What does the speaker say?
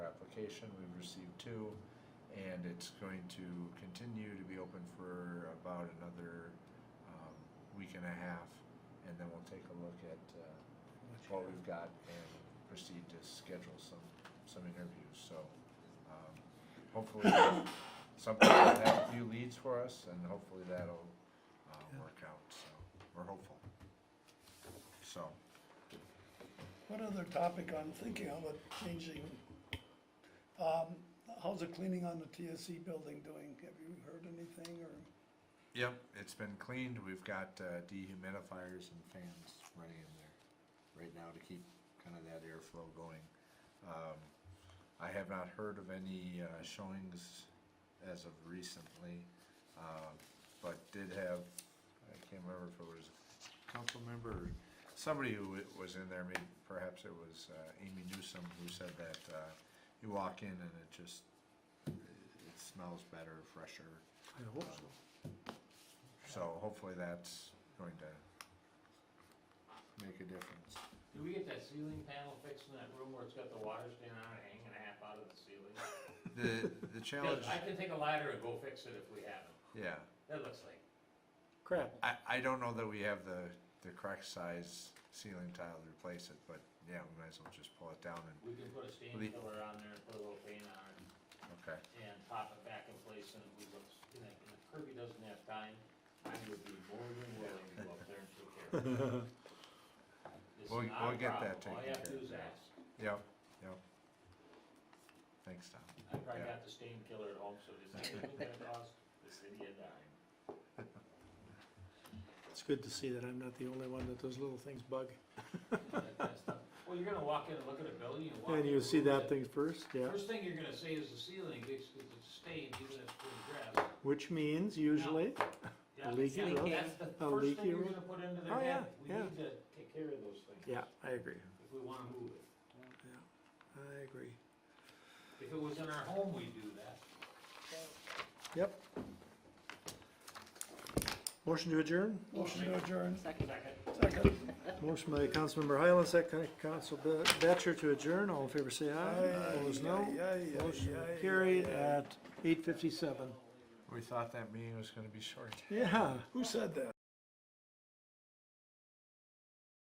application, we've received two, and it's going to continue to be open for about another, um, week and a half, and then we'll take a look at, uh, what we've got and proceed to schedule some, some interviews, so, um, hopefully something will have a few leads for us and hopefully that'll, uh, work out, so, we're hopeful. So, One other topic I'm thinking of it changing, um, how's the cleaning on the TSC building doing? Have you heard anything or? yep, it's been cleaned, we've got, uh, dehumidifiers and fans running in there right now to keep kind of that airflow going. Um, I have not heard of any, uh, showings as of recently, uh, but did have, I can't remember if it was a council member or somebody who wa- was in there, maybe perhaps it was uh, Amy Newsom who said that uh, you walk in and it just, it smells better, fresher. I hope so. So hopefully that's going to make a difference. Do we get that ceiling panel fixed in that room where it's got the water standing on it, hanging a half out of the ceiling? The, the challenge, I can take a ladder and go fix it if we haven't. yeah. That looks like, Crap. I, I don't know that we have the, the correct size ceiling tile to replace it, but yeah, we might as well just pull it down and, we can put a stain The- killer on there and put a little paint on it okay. and pop it back in place and we look, and if and if Kirby doesn't have time, I would be more than willing to go up there and take care of it. It's We'll- not a we'll get that problem. taken All you have to care do is of. ask. Yep, yep. Thanks, Tom. I probably Yeah. got the stain killer at home, so does that really gonna cost the city a dime? It's good to see that I'm not the only one that those little things bug. that kind of stuff. Well, you're gonna walk in and look at a building, you walk. And in you the see room, that the thing first, yeah, First thing you're gonna say is the ceiling, it's, it's stained, even if it's been dressed. which means usually, A Yeah, leaky yeah, roof? That's the A first leaky thing you're roof? gonna put into Oh, their yeah, head, we yeah. need to take care of those things. yeah, I agree, If we wanna move it. I agree. If it was in our home, we'd do that. Yep. Motion to adjourn, Motion to adjourn, Second. second. motion by Councilmember Highland, second by Council Be- Batchor to adjourn, all in favor say aye, opposed no. Aye, aye, aye, Motion aye, carried aye, aye. at eight fifty-seven. We thought that meeting was gonna be short. Yeah. Who said that?